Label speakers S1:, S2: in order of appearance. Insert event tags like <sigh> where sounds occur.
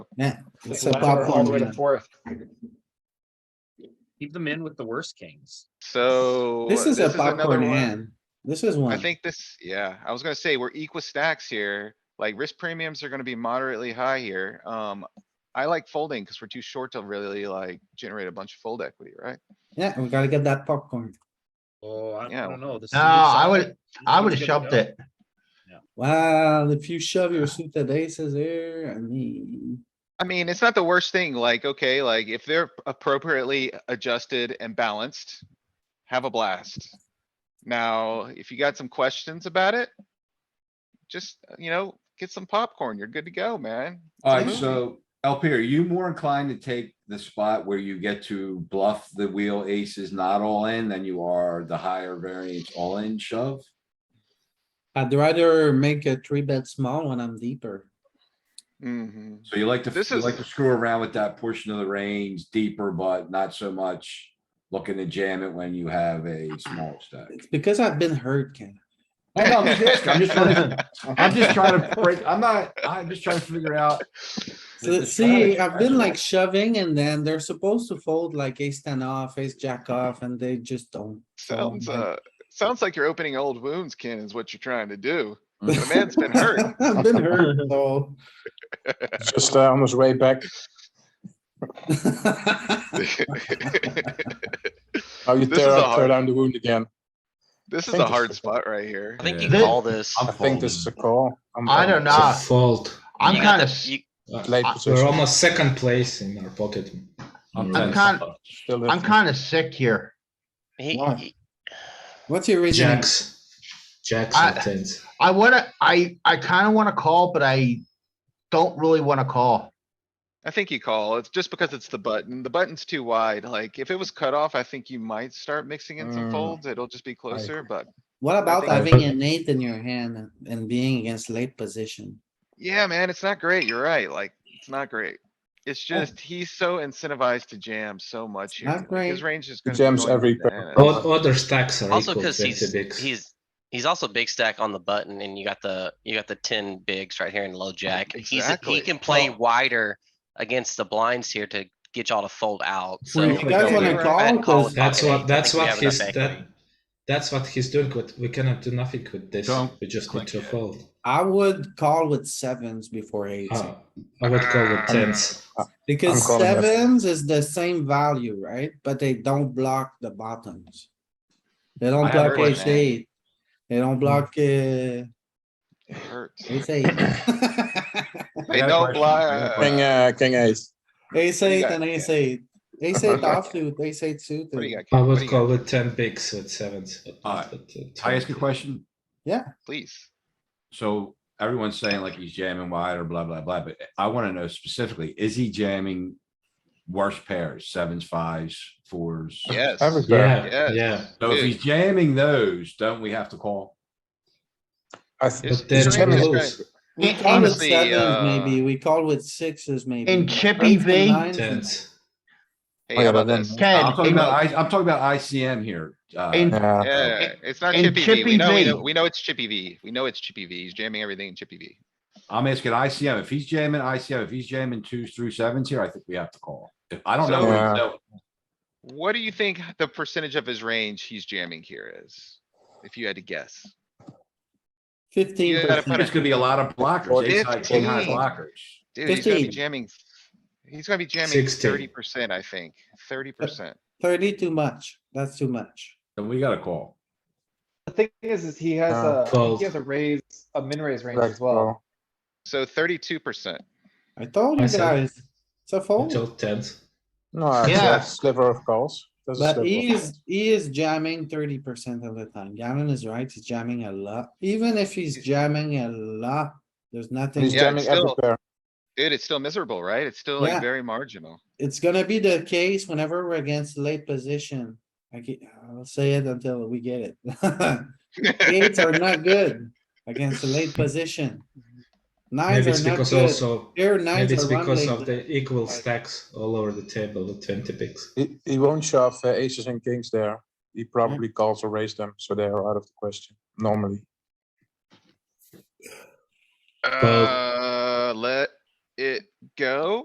S1: Yeah. it's a
S2: Left or all
S1: popcorn
S2: the way to
S1: game.
S2: fourth.
S3: Keep them in with the worst kings.
S4: So.
S1: This is a
S4: another
S1: popcorn
S4: one.
S1: hand. This is
S4: I
S1: one.
S4: think this, yeah, I was gonna say, we're equal stacks here, like risk premiums are gonna be moderately high here, um. I like folding because we're too short to really like generate a bunch of fold equity, right?
S1: Yeah, we gotta get that popcorn.
S3: Oh, I I
S4: Yeah.
S3: don't know. this is a
S5: No,
S3: good
S5: I
S3: shot.
S5: would, I
S3: This
S5: would
S3: is
S5: have
S3: good to
S5: shoved
S3: go.
S5: it.
S1: Well, if you shove your suited aces here, I mean,
S4: I mean, it's not the worst thing, like, okay, like if they're appropriately adjusted and balanced, have a blast. Now, if you got some questions about it, just, uh, you know, get some popcorn, you're good to go, man. It's a
S6: Alright,
S4: movie.
S6: so LP, are you more inclined to take the spot where you get to bluff the wheel aces not all in than you are the higher variance all in shove?
S1: I'd rather make a three bet small when I'm deeper.
S4: Mhm.
S6: So you like to,
S4: This
S6: you like
S4: is-
S6: to screw around with that portion of the range deeper, but not so much looking to jam it when you have a small stack.
S1: It's because I've been hurt, Ken.
S6: No, no, I'm just asking, I'm just trying <laughs> to, I'm just trying to break, I'm not, I'm just trying to figure out. the-
S1: So
S6: the
S1: see,
S6: strategy.
S1: I've been like shoving and then they're supposed to fold like ace ten off, ace jack off, and they just don't.
S4: Sounds,
S1: man.
S4: uh, sounds like you're opening old wounds, Ken, is what you're trying to do.
S1: <laughs>
S4: The man's been hurt. <laughs>
S1: I've been hurt, so.
S2: It's Just uh, on his way back. Now Oh, you
S4: This
S2: tear,
S4: is a
S2: up- tear
S4: hard-
S2: down the wound again.
S4: This is
S2: think
S4: a
S2: this
S4: hard
S2: is-
S4: spot right here.
S7: I think you
S5: Yeah.
S7: call this.
S2: I think this is a call. I'm
S5: I don't
S2: done.
S5: know.
S8: fault.
S5: I'm
S7: You-
S5: kind of,
S7: you-
S2: Late
S5: I-
S8: We're
S2: position.
S8: almost second place in our pocket.
S5: I'm kind,
S2: Still
S5: I'm
S2: in.
S5: kind of sick here.
S1: <laughs>
S7: he-
S1: Why?
S7: he-
S1: What's your reason?
S8: Jacks, jacks
S5: I-
S8: and tens.
S5: I wanna, I, I kind of want to call, but I don't really want to call.
S4: I think you call. It's just because it's the button. The button's too wide. Like, if it was cut off, I think you might start mixing in some
S8: Mm.
S4: folds. It'll just be closer, but
S1: What about
S4: think-
S1: having an eight in your hand and- and being against late position?
S4: yeah, man, it's not great. You're right. Like, it's not great. It's
S1: Yeah.
S4: just, he's so incentivized to jam so much here.
S1: not
S4: Like, His
S1: great.
S4: range is.
S2: He
S4: gonna be
S2: jams
S4: going
S2: every
S4: bananas.
S8: All other stacks are
S7: Also
S8: equal
S7: because
S8: to the
S7: he's,
S8: bigs.
S7: he's, he's also big stack on the button and you got the, you got the ten bigs right here in low jack. He's,
S4: Exactly.
S7: he can play
S4: Well-
S7: wider against the blinds here to get y'all to fold out, so.
S1: Well, if you guys
S4: don't
S1: wanna
S4: do it.
S1: call,
S7: I'd call
S1: 'cause
S7: with
S8: That's
S7: pocket eight. I
S8: what, that's
S7: think we
S8: what
S7: have
S8: he's,
S7: enough
S8: that,
S7: equity.
S8: that's what he's doing. With We cannot do nothing with this.
S6: Don't
S8: We just need
S6: click
S8: to
S6: it.
S8: fold.
S1: I would call with sevens before eights,
S8: Oh, I would call
S6: Uh,
S8: it tens.
S1: because
S2: I'm calling it.
S1: sevens is the same value, right? But they don't block the bottoms. They don't
S4: I
S1: block
S4: agree with
S1: ace
S4: that.
S1: eight. They don't block, uh,
S4: It hurts. <laughs>
S1: ace eight.
S4: They don't
S6: got a question. I got a
S4: block.
S6: question.
S2: King, uh, king ace.
S1: Ace
S4: you
S1: eight
S4: got,
S1: and ace
S4: Ken?
S1: eight. Ace
S4: What do
S1: eight
S4: you got,
S1: offsuit, ace eight suited.
S4: What do you got? Ken?
S8: I
S4: What do
S8: would
S4: you
S8: call
S4: got?
S8: with ten bigs with sevens. but not
S6: Alright.
S8: with, uh,
S6: I ask a
S8: 20.
S6: question?
S4: Please.
S6: So everyone's saying like he's jamming wide or blah, blah, blah, but I wanna know specifically, is he jamming worse pairs, sevens, fives, fours?
S4: Yes.
S2: Every pair.
S8: Yeah,
S4: Yes.
S8: yeah.
S6: So if he's jamming those, don't we have to call?
S2: I th-
S4: His-
S8: But
S4: his
S8: there's
S4: range is
S2: no
S4: great.
S8: rules.
S1: We
S5: In-
S1: call with
S4: honestly,
S1: sevens
S4: uh,
S1: maybe, we call with sixes maybe.
S5: In Chip EV,
S1: Nines and-
S8: Tens.
S4: Hey,
S2: Oh,
S4: how
S2: yeah,
S4: about
S2: but then-
S4: this?
S6: I'm
S5: Ken,
S6: talking
S5: in-
S6: about, I, I'm talking about ICM here. uh,
S5: in-
S2: Yeah.
S4: Yeah, it's not
S5: and
S4: Chippy V. We
S5: Chippy
S4: know, we
S5: V.
S4: know, we know it's Chippy V. We know it's Chippy V. He's jamming everything in Chippy V.
S6: I'm asking ICM, if he's jamming ICM, if he's jamming twos through sevens here, I think we have to call. If, I don't know.
S4: So-
S6: what he's doing.
S4: What do you think the percentage of his range he's jamming here is? If you had to guess.
S1: Fifteen
S4: You gotta
S6: I think
S1: percent.
S6: It's gonna be a lot of blockers, ace high, king high
S4: 15.
S6: blockers.
S4: Dude, he's gonna be
S1: 15.
S4: jamming. He's gonna be jamming
S8: 16.
S4: thirty percent, I think. Thirty percent.
S1: Thirty too much, that's too much.
S6: Then we gotta call.
S2: The thing is, is he has
S8: a- I think he Twelve. has
S2: a raise, a min raise range
S9: as well.
S4: So thirty-two percent.
S1: I told
S8: I
S1: you
S8: said-
S1: guys, it's a fold,
S8: Until tens.
S2: No, it's
S5: Yeah.
S2: a sliver of calls. There's a
S1: but
S2: sliver
S1: he
S2: of
S1: is, he is jamming thirty percent of the time. Gavin is right, he's jamming a lot. Even if he's jamming a lot, there's
S2: calls. He's
S1: nothing,
S4: Yeah,
S2: jamming every
S4: still-
S2: pair.
S4: Dude, it's still miserable, right? It's still
S1: Yeah.
S4: like very marginal.
S1: it's gonna be the case whenever we're against late position. I ge- I'll say it until we get it. <laughs> Eights are not good against the late position. Nines
S8: Maybe it's
S1: are not
S8: because
S1: good.
S8: also,
S1: Here
S8: maybe
S1: nines
S8: it's
S1: are
S8: because of
S1: running.
S8: the equal stacks all over the table, the twenty bigs.
S2: He, he won't shove uh, aces and kings there. He probably
S1: Mm-hmm.
S2: calls or raise them, so they are out of the question normally.
S4: Uh, let it go.